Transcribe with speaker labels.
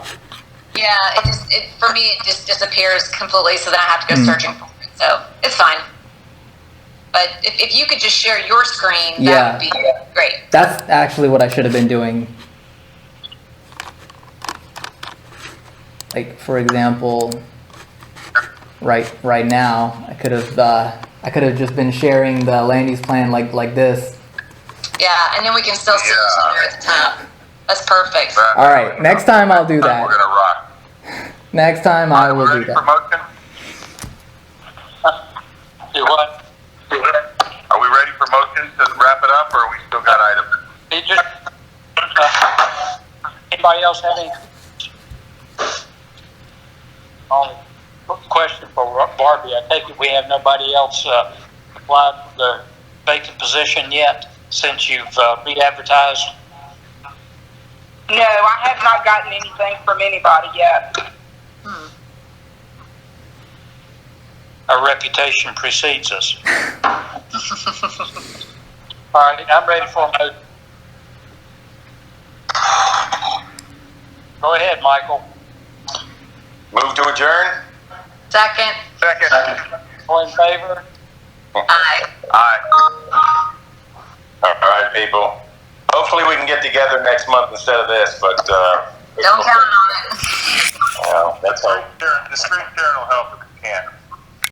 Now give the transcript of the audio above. Speaker 1: Yeah, it just it, for me it just disappears completely. So then I have to go
Speaker 2: Mm.
Speaker 1: searching for it. So it's fine. But if, if you could just share your screen, that
Speaker 2: Yeah.
Speaker 1: would be great.
Speaker 2: That's actually what I should have been doing. Like for example, right right now, I could have uh, I could have just been sharing the land use plan like like this.
Speaker 1: Yeah, and then we can still see each other at the top. That's perfect.
Speaker 3: That-
Speaker 2: All right, next time I'll do
Speaker 3: We're
Speaker 2: that.
Speaker 3: gonna rock.
Speaker 2: Next time I will do
Speaker 3: Ready for
Speaker 2: that.
Speaker 3: motion?
Speaker 4: Do what?
Speaker 3: Are we ready for motion to wrap it up, or we still got items?
Speaker 4: Did you, uh, anybody else have any? Only Um, question for Barbie. I take it we have nobody else, uh, applied for the vacant position yet since you've, uh, re-advertised?
Speaker 5: No, I have not gotten anything from anybody yet.
Speaker 4: Our reputation precedes us. All right, I'm ready for a motion. Go ahead, Michael.
Speaker 3: Move to adjourn?
Speaker 1: Second,
Speaker 3: Second.
Speaker 4: All in favor?
Speaker 1: I
Speaker 3: Aye. All right, people. Hopefully, we can get together next month instead of this, but, uh.
Speaker 1: don't count on it.
Speaker 3: Yeah, that's all. The screen sharing will help if you can.